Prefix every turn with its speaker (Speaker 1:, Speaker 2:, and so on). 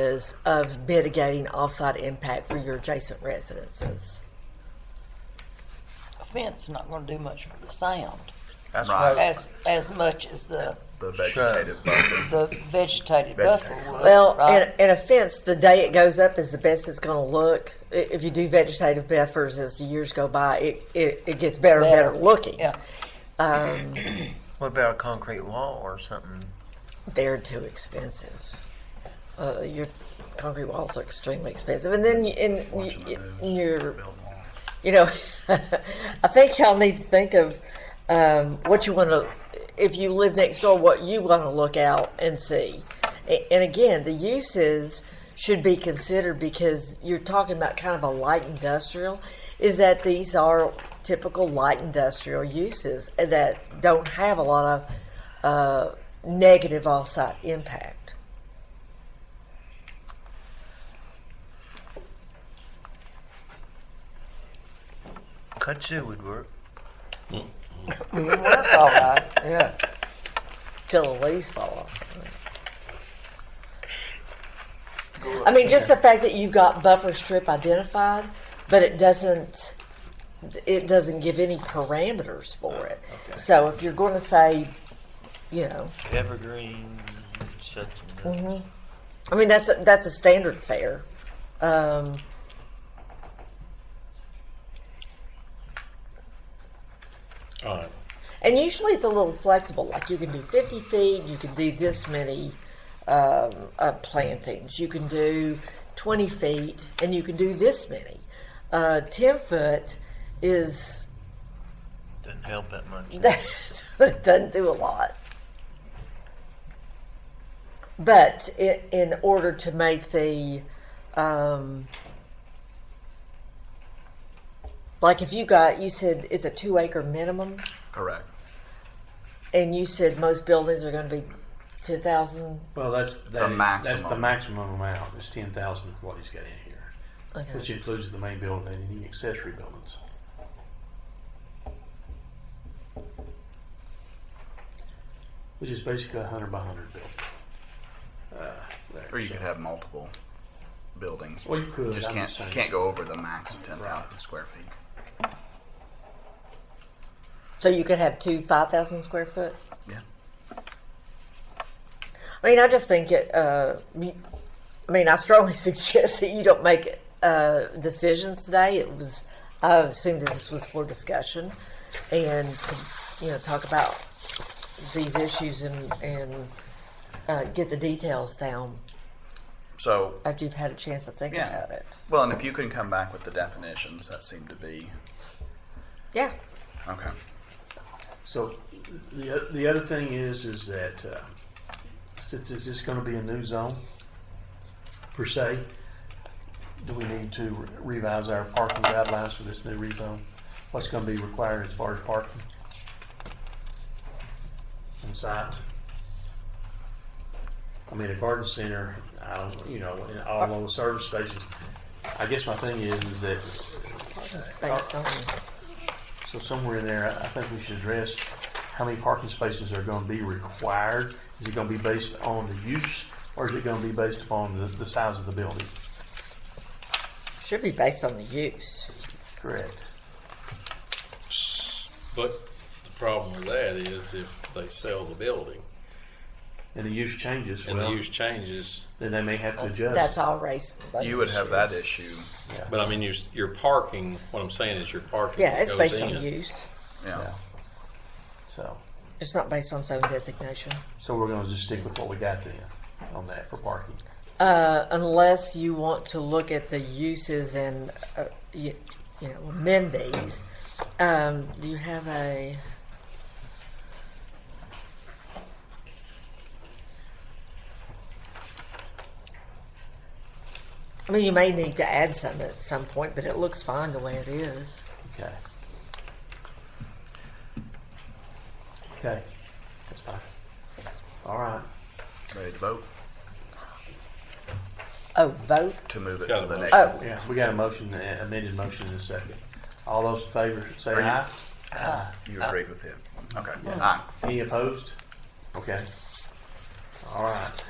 Speaker 1: purposes of mitigating offsite impact for your adjacent residences.
Speaker 2: A fence is not gonna do much for the sound,
Speaker 3: That's
Speaker 4: Right.
Speaker 3: right.
Speaker 2: as, as much as the,
Speaker 4: the vegetative buffer.
Speaker 2: the vegetated buffer would,
Speaker 1: Well,
Speaker 2: right?
Speaker 1: in, in a fence, the day it goes up is the best it's going to look. I- If you do vegetative buffers as the years go by, it, it, it gets better and better
Speaker 2: Better.
Speaker 1: looking.
Speaker 2: Yeah,
Speaker 1: Um,
Speaker 3: What about a concrete wall or something?
Speaker 1: they're too expensive. Uh, your concrete walls are extremely expensive, and then you- and, you, and your you know, I think y'all need to think of um, what you want to, if you live next door, what you want to look out and see. A- And again, the uses should be considered because you're talking about kind of a light industrial, is that these are typical light industrial uses that don't have a lot of uh, negative offsite impact.
Speaker 3: Kudzu would work.
Speaker 2: it would work all right, yeah.
Speaker 1: till the leaves fall off. I mean, just the fact that you've got buffer strip identified, but it doesn't, it doesn't give any parameters for it. So if you're going to say, you know,
Speaker 3: Evergreen, such and
Speaker 1: mhm. I mean, that's, a- that's a standard fare. Um,
Speaker 5: All right.
Speaker 1: And usually it's a little flexible, like you can do 50 feet, you can do this many um, uh, plantings, you can do 20 feet, and you can do this many. Uh, 10 foot is,
Speaker 3: doesn't help that much.
Speaker 1: it doesn't do a lot. But i in order to make the, um, like if you got, you said it's a two acre minimum?
Speaker 4: Correct.
Speaker 1: And you said most buildings are going to be ten thousand.
Speaker 6: Well, that's that
Speaker 4: a
Speaker 6: is- That's the
Speaker 4: maximum.
Speaker 6: maximum amount. It's ten thousand of what he's got in here, which
Speaker 1: Okay.
Speaker 6: includes the main building and any accessory buildings. Which is basically a hundred by hundred building. Uh, there,
Speaker 4: Or you
Speaker 6: so-
Speaker 4: could have multiple buildings.
Speaker 6: Well, you could.
Speaker 4: just
Speaker 6: I'm
Speaker 4: can't
Speaker 6: just saying.
Speaker 4: can't go over the max of ten thousand square feet.
Speaker 1: So you could have two five thousand square foot.
Speaker 4: Yeah.
Speaker 1: I mean, I just think it. Uh, you- I mean, I strongly suggest that you don't make uh, decisions today. It was. I assumed that this was for discussion, and to, you know, talk about these issues and and uh, get the details down
Speaker 4: So
Speaker 1: after you've had a chance to think
Speaker 4: Yeah.
Speaker 1: about it.
Speaker 4: well, and if you can come back with the definitions, that seem to be
Speaker 1: Yeah.
Speaker 4: okay.
Speaker 6: So the the other thing is is that uh, since this is going to be a new zone per se, do we need to revise our parking guidelines for this new rezone? What's going to be required as far as parking on site? I mean, a garden center, I don't, you know, and all those service stations. I guess my thing is, is that
Speaker 1: Based on.
Speaker 6: so somewhere in there, I I think we should address how many parking spaces are gonna be required. Is it gonna be based on the use, or is it gonna be based upon the, the size of the building?
Speaker 1: Should be based on the use.
Speaker 6: Correct.
Speaker 5: But the problem with that is if they sell the building
Speaker 6: And the use changes,
Speaker 5: and the
Speaker 6: well,
Speaker 5: use changes,
Speaker 6: then they may have to
Speaker 1: That's
Speaker 6: adjust.
Speaker 1: all race.
Speaker 4: You would have that issue.
Speaker 5: but I mean, you're, you're parking, what I'm saying is you're parking.
Speaker 1: Yeah, it's
Speaker 5: goes
Speaker 1: based on
Speaker 5: in.
Speaker 1: use.
Speaker 4: Yeah.
Speaker 6: Yeah. So,
Speaker 1: It's not based on zone designation,
Speaker 6: so we're gonna just stick with what we got then on that for parking.
Speaker 1: uh, unless you want to look at the uses and uh, you, you know amend these. Um, do you have a? I mean, you may need to add some at some point, but it looks fine the way it is.
Speaker 6: Okay. Okay, that's fine. All right.
Speaker 4: Ready to vote
Speaker 1: Oh, vote.
Speaker 4: to move it
Speaker 5: Got
Speaker 4: to
Speaker 5: a
Speaker 4: the next.
Speaker 5: motion.
Speaker 1: Oh,
Speaker 6: Yeah, we got a motion, a- amended motion in a second. All those in favor, say
Speaker 4: Are you-
Speaker 6: aye. Aye.
Speaker 4: You agreed with him. Okay. Aye.
Speaker 6: Any opposed? Okay. All right.